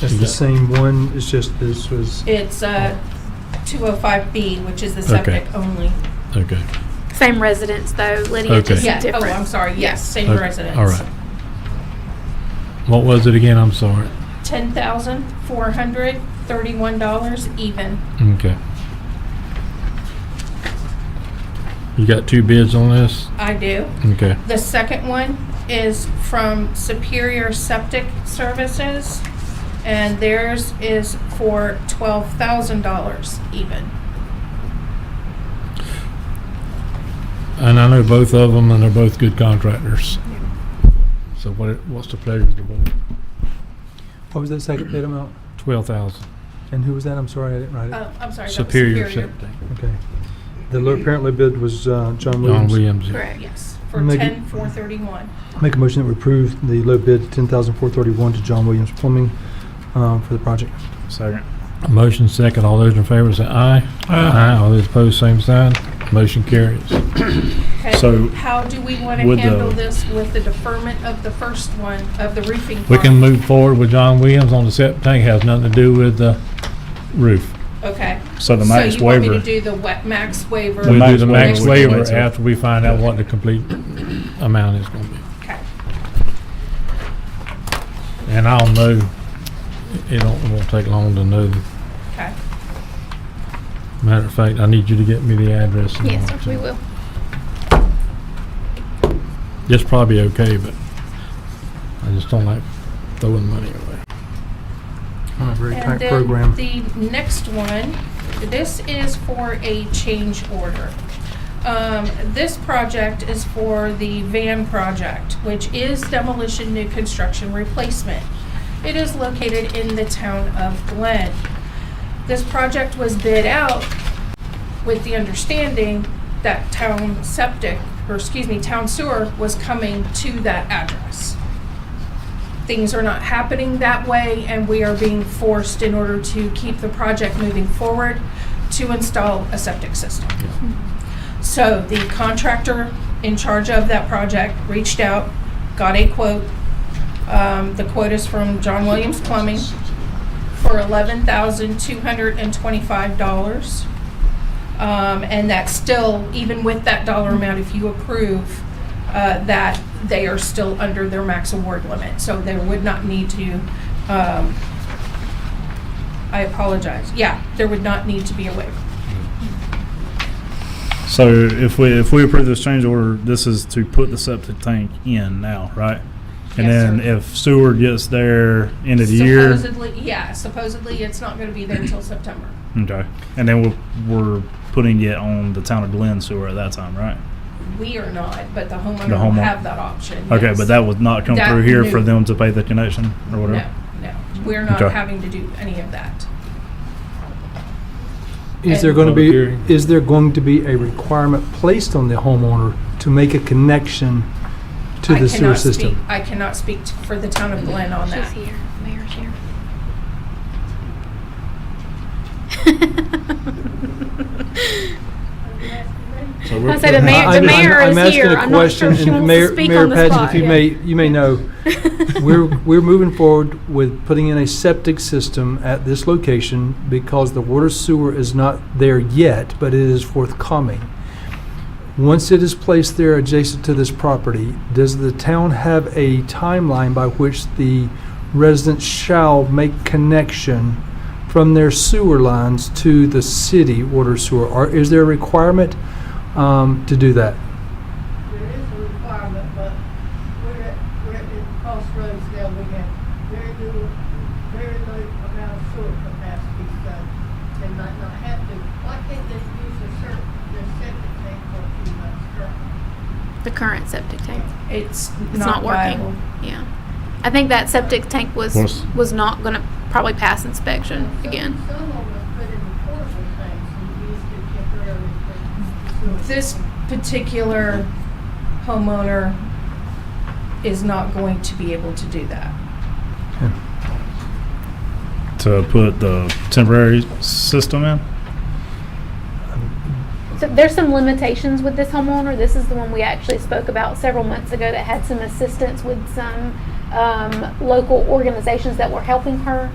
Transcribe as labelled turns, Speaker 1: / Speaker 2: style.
Speaker 1: It's the same one, it's just this was,
Speaker 2: It's uh, 205B, which is the septic only.
Speaker 3: Okay,
Speaker 4: Same residence though, Lydia,
Speaker 3: Okay.
Speaker 4: just
Speaker 2: Yeah, oh,
Speaker 4: different.
Speaker 2: I'm sorry, yes, same
Speaker 3: Okay,
Speaker 2: residence.
Speaker 3: all right. What was it again? I'm sorry.
Speaker 2: $10,431 even.
Speaker 3: Okay. You got two bids on this?
Speaker 2: I do.
Speaker 3: Okay,
Speaker 2: The second one is from Superior Septic Services, and theirs is for $12,000 even.
Speaker 3: and I know both of them, and they're both good contractors. So what, what's the pleasure of the board?
Speaker 1: what was that second bid amount?
Speaker 3: Twelve thousand,
Speaker 1: And who was that? I'm sorry, I didn't write it.
Speaker 2: Oh, I'm sorry. that was
Speaker 3: Superior Septic.
Speaker 2: Oh.
Speaker 1: Okay. The lo- apparently bid was uh, John
Speaker 3: John
Speaker 1: Williams.
Speaker 3: Williams. yeah.
Speaker 4: Correct.
Speaker 2: Yes, for
Speaker 1: Make it-
Speaker 2: 10431.
Speaker 1: Make a motion that we approve the low bid, 10431 to John Williams Plumbing um, for the project.
Speaker 5: Second.
Speaker 3: Motion second, all those in favor say aye. Aye. All those opposed, same sign. Motion carries.
Speaker 2: Okay,
Speaker 5: So,
Speaker 2: How do we want to
Speaker 5: would the-
Speaker 2: handle this with the deferment of the first one, of the roofing?
Speaker 3: We can
Speaker 2: part?
Speaker 3: move forward with John Williams on the septic tank, has nothing to do with the roof.
Speaker 2: Okay.
Speaker 5: So the max
Speaker 2: So you want me to
Speaker 5: waiver-
Speaker 2: do the wet max waiver?
Speaker 3: We'll
Speaker 5: max
Speaker 3: do the
Speaker 5: waiver
Speaker 3: max
Speaker 2: would be
Speaker 3: waiver
Speaker 5: later.
Speaker 3: after we find out what the complete amount is gonna be.
Speaker 2: Okay.
Speaker 3: And I'll know, it don't, it won't take long to know.
Speaker 2: Okay.
Speaker 3: Matter of fact, I need you to get me the address. and all
Speaker 4: Yes,
Speaker 3: that.
Speaker 4: we will.
Speaker 3: It's probably okay, but I just don't like throwing money away.
Speaker 1: On a very
Speaker 2: And
Speaker 1: tight
Speaker 2: then
Speaker 1: program.
Speaker 2: The next one, this is for a change order. Um, This project is for the van project, which is demolition, new construction, replacement. It is located in the town of Glen. This project was bid out with the understanding that town septic, or excuse me, town sewer was coming to that address things are not happening that way and we are being forced in order to keep the project moving forward to install a septic system. So the contractor in charge of that project reached out, got a quote. Um, the quote is from John Williams Plumbing for eleven thousand two hundred and twenty-five dollars. Um, and that's still, even with that dollar amount, if you approve, uh, that they are still under their max award limit. So they would not need to, um, I apologize. Yeah, there would not need to be a waiver.
Speaker 5: So if we, if we approve this change order, this is to put the septic tank in now, right? And
Speaker 2: Yes,
Speaker 5: then
Speaker 2: sir.
Speaker 5: if sewer gets there end of the year,
Speaker 2: Supposedly, yeah, supposedly it's not gonna be there until September.
Speaker 5: okay, and then we're, we're putting it on the town of Glen sewer at that time, right?
Speaker 2: We are not, but the homeowner
Speaker 5: The
Speaker 2: will
Speaker 5: homeowner.
Speaker 2: have that option.
Speaker 5: Okay,
Speaker 2: yes.
Speaker 5: but that would not come
Speaker 2: That
Speaker 5: through here
Speaker 2: new-
Speaker 5: for them to pay the connection or
Speaker 2: No,
Speaker 5: whatever?
Speaker 2: no, we're not
Speaker 5: Okay.
Speaker 2: having to do any of that.
Speaker 1: Is there
Speaker 2: and-
Speaker 1: going to
Speaker 3: Public
Speaker 1: be,
Speaker 3: hearing.
Speaker 1: is there going to be a requirement placed on the homeowner to make a connection to
Speaker 2: I
Speaker 1: the sewer
Speaker 2: cannot
Speaker 1: system?
Speaker 2: speak- I cannot speak t- for the town of Glen on
Speaker 4: She's
Speaker 2: that.
Speaker 4: here, Mayor's here.
Speaker 3: So
Speaker 4: I
Speaker 3: we're
Speaker 4: said the
Speaker 3: putting-
Speaker 4: mayor,
Speaker 1: I-
Speaker 4: the
Speaker 1: I'm-
Speaker 4: mayor
Speaker 1: I'm
Speaker 4: is
Speaker 1: asking
Speaker 4: here.
Speaker 1: a
Speaker 4: I'm not sure
Speaker 1: question,
Speaker 4: if she
Speaker 1: and
Speaker 4: wants
Speaker 1: Mayor-
Speaker 4: to speak
Speaker 1: Mayor
Speaker 4: on the
Speaker 1: Padgett,
Speaker 4: spot.
Speaker 1: If you may, you may know, We're, we're moving forward with putting in a septic system at this location because the water sewer is not there yet, but it is forthcoming. Once it is placed there adjacent to this property, does the town have a timeline by which the residents shall make connection from their sewer lines to the city water sewer? Or is there a requirement um, to do that?
Speaker 6: There is a requirement, but we're at, we're at this crossroads now, we have very little, very low amount of sewer capacity, so they might not have to. Why can't they use the cer, the septic tank for a few months currently?
Speaker 4: The current septic tank.
Speaker 2: It's
Speaker 4: It's
Speaker 2: not
Speaker 4: not
Speaker 2: viable.
Speaker 4: working. Yeah. I think that septic tank was,
Speaker 3: Was-
Speaker 4: was not gonna probably pass inspection
Speaker 6: Some-
Speaker 4: again.
Speaker 6: Some of them put in portable tanks and used it temporarily for sewer.
Speaker 2: This particular homeowner is not going to be able to do that.
Speaker 5: To put the temporary system in?
Speaker 4: So there's some limitations with this homeowner. This is the one we actually spoke about several months ago that had some assistance with some um, local organizations that were helping her.